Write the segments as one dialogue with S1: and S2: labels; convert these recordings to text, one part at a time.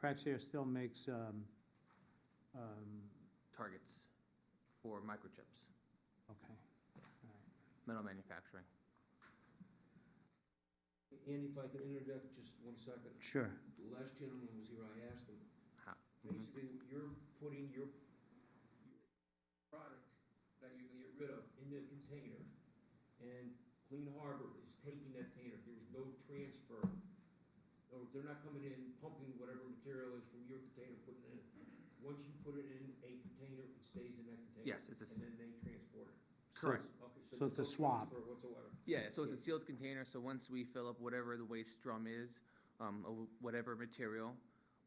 S1: Praxair still makes, um, um,
S2: targets for microchips,
S1: okay.
S2: metal manufacturing.
S3: Andy, if I could interject just one second.
S1: Sure.
S3: The last gentleman was here, I asked him,
S2: How-
S3: basically, you're putting your, your product that you're gonna get rid of in the container, and Clean Harbor is taking that container, there's no transfer. Or they're not coming in pumping whatever material is from your container, putting it in. Once you put it in a container, it stays in that container.
S2: Yes, it's a
S3: And
S2: s-
S3: then they transport it.
S2: Correct.
S3: Okay,
S1: So
S3: so
S1: it's a
S3: there's no
S1: swab.
S3: transfer whatsoever.
S2: Yeah, so it's a sealed container, so once we fill up whatever the waste drum is, um, of whatever material,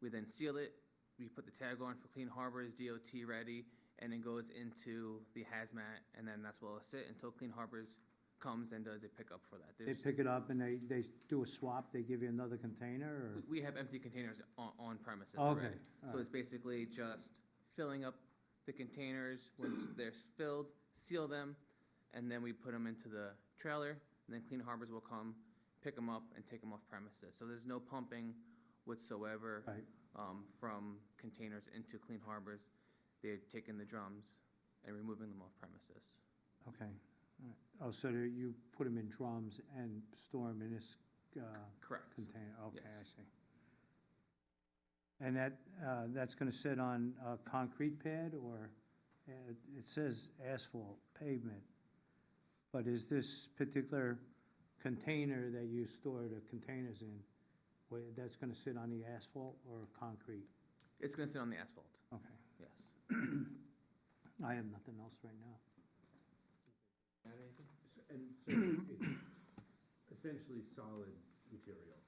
S2: we then seal it, we put the tag on for Clean Harbors, DOT ready, and it goes into the hazmat, and then that's where it'll sit until Clean Harbors comes and does a pickup for that.
S1: They
S2: There's,
S1: pick it up and they, they do a swap, they give you another container or?
S2: we- we have empty containers on, on premises
S1: Okay,
S2: already.
S1: all
S2: So
S1: right.
S2: it's basically just filling up the containers, once they're filled, seal them, and then we put them into the trailer, and then Clean Harbors will come, pick them up, and take them off premises. So there's no pumping whatsoever
S1: Right.
S2: um, from containers into Clean Harbors. They're taking the drums and removing them off premises.
S1: Okay, all right. Oh, so there- you put them in drums and store them in this uh,
S2: Correct.
S1: container? Okay, I
S2: Yes.
S1: see. And that, uh, that's going to sit on a concrete pad or, uh, it says asphalt pavement, but is this particular container that you store the containers in, where that's going to sit on the asphalt or concrete?
S2: It's gonna sit on the asphalt,
S1: Okay,
S2: yes.
S1: I have nothing else right now.
S3: Got anything?
S4: S- And so it's essentially solid material.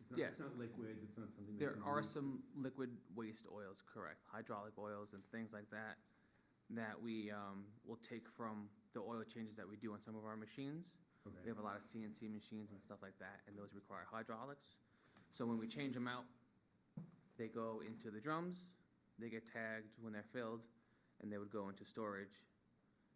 S4: It's not-
S2: Yes.
S4: It's not liquids, it's not something that.
S2: There
S4: can
S2: are
S4: be-
S2: some liquid waste oils, correct, hydraulic oils and things like that, that we, um, will take from the oil changes that we do on some of our machines. We
S4: Okay,
S2: have a lot of CNC machines and stuff like that, and those require hydraulics. So when we change them out, they go into the drums, they get tagged when they're filled, and they would go into storage,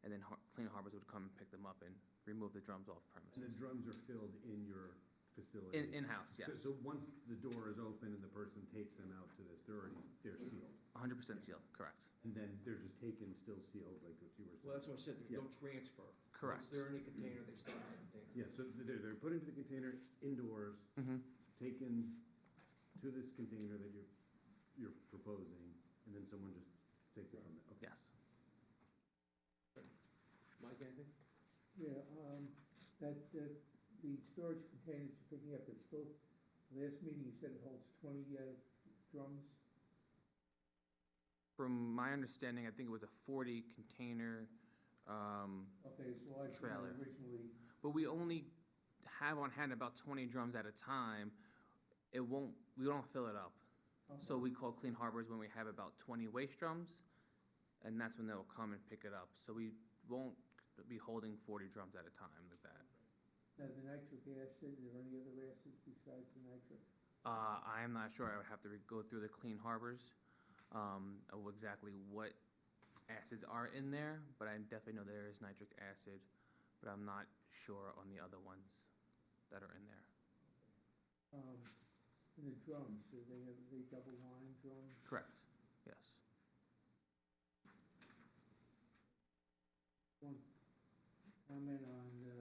S2: and then Har- Clean Harbors would come and pick them up and remove the drums off
S4: and the
S2: premises.
S4: drums are filled in your facility.
S2: In, in-house,
S4: So-
S2: yes,
S4: So once the door is open and the person takes them out to this, they're already, they're sealed.
S2: hundred percent sealed, correct,
S4: And then they're just taken, still sealed, like what you were saying.
S3: Well, that's what I said, there's no transfer.
S2: correct.
S3: Once they're in a container, they stay in a container.
S4: Yeah, so they're, they're put into the container indoors,
S2: Mhm.
S4: taken to this container that you're, you're proposing, and then someone just takes it from there. Okay.
S2: yes.
S3: Mike, anything?
S5: Yeah, um, that, that, the storage containers you're picking up, it's still, last meeting you said it holds twenty, uh, drums?
S2: From my understanding, I think it was a forty container, um,
S5: Okay, it's larger
S2: Trailer.
S5: than originally,
S2: but we only have on hand about twenty drums at a time. It won't, we don't fill it up. So
S5: Okay.
S2: we call Clean Harbors when we have about twenty waste drums, and that's when they'll come and pick it up. So we won't be holding forty drums at a time like that.
S5: Now, the nitric acid, are there any other acids besides the nitric?
S2: Uh, I am not sure, I would have to re- go through the Clean Harbors, um, of exactly what acids are in there, but I definitely know there is nitric acid, but I'm not sure on the other ones that are in there.
S5: Um, and the drums, are they, are they double line drums?
S2: Correct, yes.
S5: One comment on, uh,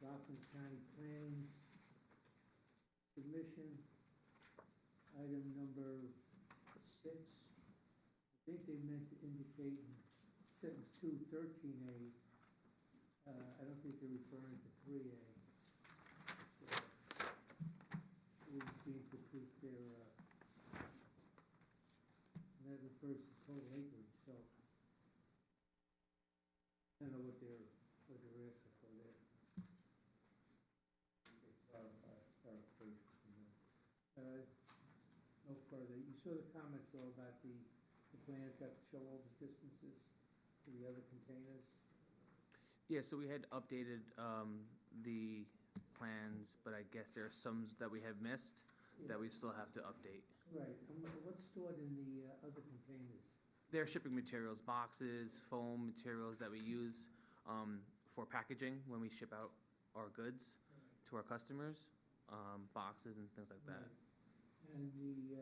S5: Rockland County Planning submission, item number six. I think they meant to indicate in sentence two, thirteen A. Uh, I don't think they're referring to three A. We seem to put their, uh, that refers to total acreage, so I don't know what they're, what they're asking for there. Okay, clarify, clarify, you know. Uh, No further, you saw the comments though about the, the plans that show all the distances to the other containers?
S2: Yeah, so we had updated, um, the plans, but I guess there are some that we have missed that we still have to update.
S5: Right, and what- what's stored in the uh, other containers?
S2: They're shipping materials, boxes, foam materials that we use, um, for packaging when we ship out our goods to our customers, um, boxes and things like that.
S5: And the, uh,